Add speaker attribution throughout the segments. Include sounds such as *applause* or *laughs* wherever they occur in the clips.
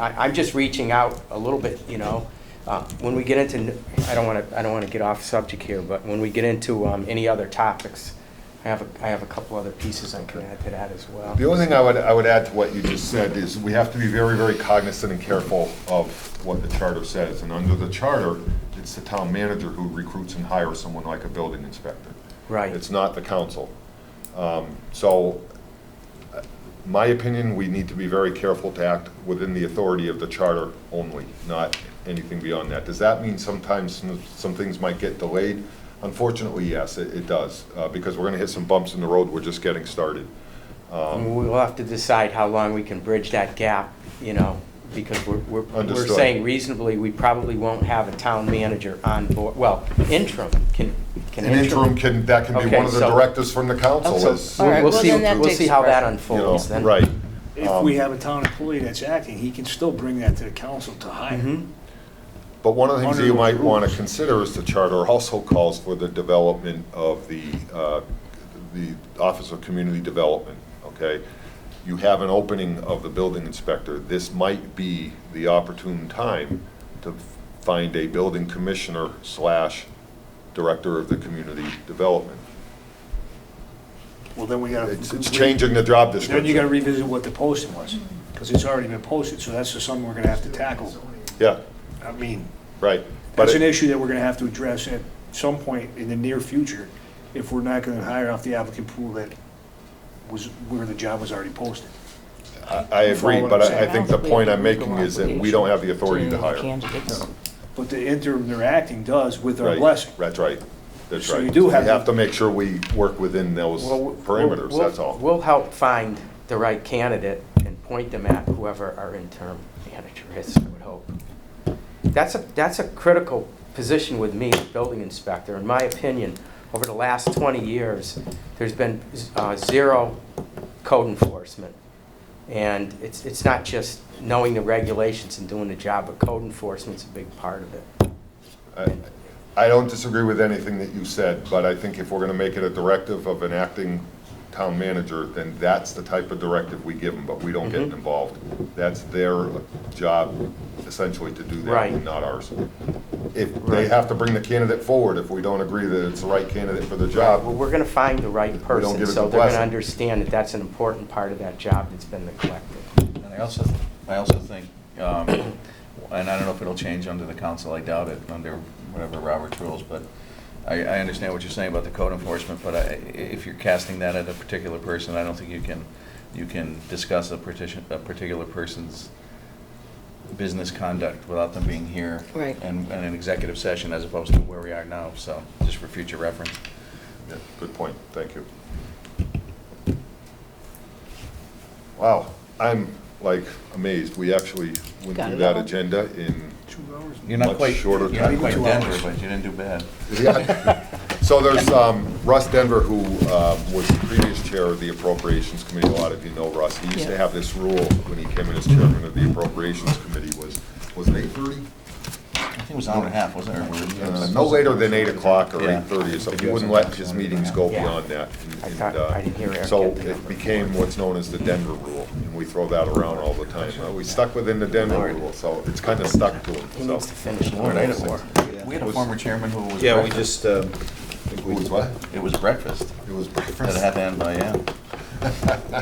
Speaker 1: I, I'm just reaching out a little bit, you know. Uh, When we get into, I don't want to, I don't want to get off subject here, but when we get into um, any other topics, I have, a I have a couple other pieces I can add to that as well.
Speaker 2: The only thing I would, I would add to what you just said is we have to be very, very cognizant and careful of what the charter says. And under the charter, it's the town manager who recruits and hires someone like a building inspector.
Speaker 1: Right,
Speaker 2: It's not the council. Um, So, uh, my opinion, we need to be very careful to act within the authority of the charter only, not anything beyond that. Does that mean sometimes some- some things might get delayed? Unfortunately, yes, it it does, uh, because we're going to hit some bumps in the road, we're just getting started. um,
Speaker 1: And we'll have to decide how long we can bridge that gap, you know, because we're, we're, we're
Speaker 2: Understood.
Speaker 1: saying reasonably, we probably won't have a town manager on board, well, interim, can, can
Speaker 2: An
Speaker 1: interim.
Speaker 2: interim can, that can be
Speaker 1: Okay,
Speaker 2: one of the
Speaker 1: so-
Speaker 2: directives from the council
Speaker 1: So,
Speaker 2: is,
Speaker 3: All right,
Speaker 1: We'll
Speaker 3: well,
Speaker 1: see,
Speaker 3: then that
Speaker 1: we'll
Speaker 3: takes
Speaker 1: see how that
Speaker 2: you know,
Speaker 1: unfolds then.
Speaker 2: right.
Speaker 4: If we
Speaker 2: Um,
Speaker 4: have a town employee that's acting, he can still bring that to the council to hire.
Speaker 2: Mm-hmm.
Speaker 1: Mhm.
Speaker 2: But one of the things that you
Speaker 4: Under the
Speaker 2: might want to
Speaker 4: rules.
Speaker 2: consider is the charter also calls for the development of the, uh, the Office of Community Development, okay? You have an opening of the building inspector. This might be the opportune time to find a building commissioner slash director of the community development.
Speaker 4: Well, then we gotta.
Speaker 2: It's it's changing the job description.
Speaker 4: Then you gotta revisit what the posting was, because it's already been posted, so that's just something we're gonna have to tackle.
Speaker 2: Yeah,
Speaker 4: I mean,
Speaker 2: right. But
Speaker 4: that's an
Speaker 2: it-
Speaker 4: issue that we're gonna have to address at some point in the near future, if we're not gonna hire off the applicant pool that was, where the job was already posted.
Speaker 2: I I agree,
Speaker 4: Follow
Speaker 2: but
Speaker 4: what I'm
Speaker 2: I I think the
Speaker 3: saying.
Speaker 2: point I'm making is that we don't have the authority to hire.
Speaker 3: Candidates.
Speaker 4: But the interim they're acting does with our
Speaker 2: Right,
Speaker 4: blessing.
Speaker 2: That's right, that's
Speaker 4: So
Speaker 2: right.
Speaker 4: you do have
Speaker 2: We
Speaker 4: to-
Speaker 2: have to make sure we work within those
Speaker 1: Well, we'll-
Speaker 2: parameters,
Speaker 1: we'll-
Speaker 2: that's all.
Speaker 1: We'll help find the right candidate and point them at whoever our interim manager is, I would hope. That's a, that's a critical position with me, as building inspector. In my opinion, over the last 20 years, there's been uh, zero code enforcement. And it's, it's not just knowing the regulations and doing the job, but code enforcement's a big part of it.
Speaker 2: I- I don't disagree with anything that you said, but I think if we're going to make it a directive of an acting town manager, then that's the type of directive we give them, but we don't get
Speaker 1: Mhm.
Speaker 2: involved. That's their job essentially to do that,
Speaker 1: Right.
Speaker 2: not ours. If they
Speaker 1: Right.
Speaker 2: have to bring the candidate forward, if we don't agree that it's the right candidate for the job,
Speaker 1: Well, we're gonna find the right person,
Speaker 2: give it
Speaker 1: so
Speaker 2: the
Speaker 1: they're gonna
Speaker 2: blessing.
Speaker 1: understand that that's an important part of that job that's been neglected.
Speaker 5: And I also, I also think, um, and I don't know if it'll change under the council, I doubt it, under whatever Robert's rules, but I, I understand what you're saying about the code enforcement, but I, if you're casting that at a particular person, I don't think you can, you can discuss a partition, a particular person's business conduct without them being here.
Speaker 3: Right.
Speaker 5: And, and an executive session as opposed to where we are now, so, just for future reference.
Speaker 2: Yeah, good point, thank you. Wow, I'm like amazed, we actually went
Speaker 3: Got
Speaker 2: through
Speaker 3: it
Speaker 2: that
Speaker 3: all.
Speaker 2: agenda in,
Speaker 4: Two hours?
Speaker 5: You're not
Speaker 2: Much
Speaker 5: quite, you're
Speaker 2: shorter
Speaker 5: not
Speaker 2: time.
Speaker 5: quite
Speaker 4: Two
Speaker 5: Denver,
Speaker 4: hours.
Speaker 5: but you didn't do bad.
Speaker 2: *laughs* so there's um, Russ Denver, who um, was the previous chair of the Appropriations Committee, a lot of you know Russ, he used to
Speaker 3: Yeah.
Speaker 2: have this rule when he came in as chairman of the Appropriations Committee, was, was it eight thirty?
Speaker 5: I think it was an hour and a half, wasn't it?
Speaker 2: Uh, No later than 8 o'clock or
Speaker 5: Yeah.
Speaker 2: 8:30 or something. He
Speaker 5: Yeah.
Speaker 2: wouldn't let his meetings go
Speaker 1: Yeah.
Speaker 2: beyond that.
Speaker 1: I
Speaker 2: and-
Speaker 1: thought-
Speaker 2: and, uh,
Speaker 1: I didn't hear Eric
Speaker 2: So
Speaker 1: get the
Speaker 2: it
Speaker 1: number.
Speaker 2: became what's known as the Denver rule, and we throw that around all the time. Uh, We stuck within the Denver rule, so it's kind of stuck to
Speaker 1: He
Speaker 2: it,
Speaker 1: needs to
Speaker 2: so.
Speaker 1: finish.
Speaker 5: Lord, I had a war. We had a
Speaker 2: Was-
Speaker 5: former chairman who was.
Speaker 6: Yeah, we
Speaker 5: breakfast.
Speaker 6: just, um,
Speaker 2: It was what?
Speaker 5: It was breakfast.
Speaker 2: It was
Speaker 5: That
Speaker 2: breakfast.
Speaker 5: had to end by, yeah.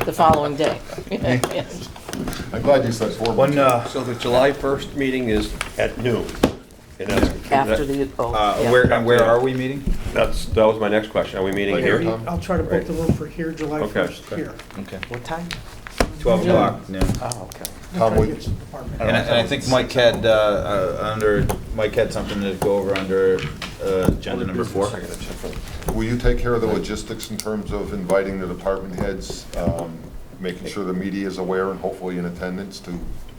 Speaker 3: The following day. *laughs*
Speaker 2: I'm glad you said four.
Speaker 6: one, uh,
Speaker 7: So the July 1st meeting is at noon. and that's-
Speaker 3: After the, oh,
Speaker 6: uh,
Speaker 3: yeah.
Speaker 6: where, and where are we meeting?
Speaker 7: That's, that was my next question. Are we meeting
Speaker 2: Like
Speaker 7: here?
Speaker 2: here?
Speaker 8: I'll try to book the room for here, July
Speaker 7: Okay.
Speaker 8: 1st, here.
Speaker 5: Okay.
Speaker 1: What time?
Speaker 6: Twelve o'clock, noon.
Speaker 1: Oh, okay.
Speaker 2: Tom,
Speaker 8: Try to
Speaker 2: would-
Speaker 8: get to the department.
Speaker 6: And I, and I think Mike had, uh, uh, under, Mike had something to go over under, uh, agenda number four.
Speaker 2: Will you take care of the logistics in terms of inviting the department heads, um, making sure the media is aware and hopefully in attendance to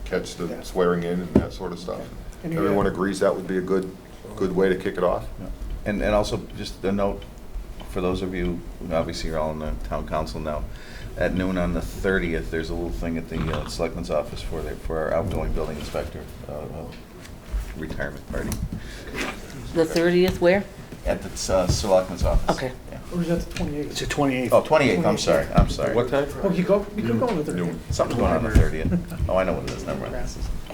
Speaker 2: catch the swearing in and that sort of stuff?
Speaker 8: And you have-
Speaker 2: Everyone agrees that would be a good, good way to kick it off?
Speaker 5: And, and also, just a note, for those of you, who obviously you're all in the town council now, at noon on the thirtieth, there's a little thing at the uh, selectmen's office for the, for our outgoing building inspector, uh, uh, retirement party.
Speaker 3: The 30th, where?
Speaker 5: At the uh, selectmen's office.
Speaker 3: Okay.
Speaker 5: Yeah.
Speaker 8: Or is that the
Speaker 4: It's
Speaker 8: 28th?
Speaker 4: the twenty-eighth.
Speaker 5: Oh, twenty-eighth, I'm sorry, I'm sorry.
Speaker 7: What time?
Speaker 8: Oh, you go, you could go on the 30th.
Speaker 2: Noon.
Speaker 5: Something's going on the thirtieth. Oh, I know what it is, never mind.